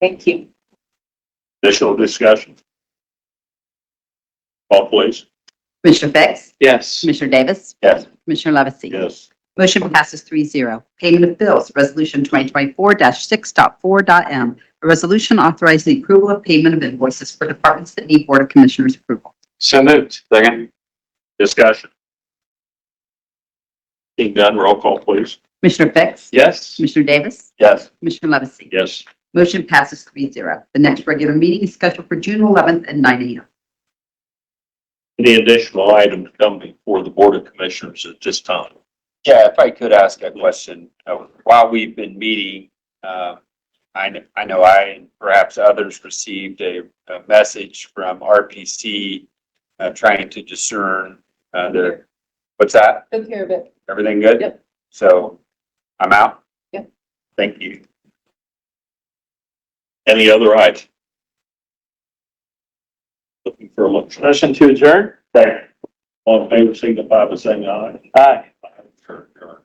Thank you. Additional discussion? Call please. Commissioner Fix? Yes. Commissioner Davis? Yes. Commissioner Levesey? Yes. Motion passes 3-0. Payment of bills, Resolution 2024-6.4.m. A resolution authorizing the approval of payment of invoices for departments that need Board of Commissioners approval. So moved. Second. Discussion? Seeing none, roll call please. Commissioner Fix? Yes. Commissioner Davis? Yes. Commissioner Levesey? Yes. Motion passes 3-0. The next regular meeting is scheduled for June 11th at 9 a.m. Any additional items come before the Board of Commissioners at this time? Yeah, if I could ask a question, Uh, while we've been meeting, uh, I, kn- I know I and perhaps others received a, a message from RPC uh, trying to discern uh, the, what's that? Took care of it. Everything good? Yep. So I'm out? Yep. Thank you. Any other items? Looking for a motion. Motion to adjourn? All in favor, signify by saying aye. Aye. Aye.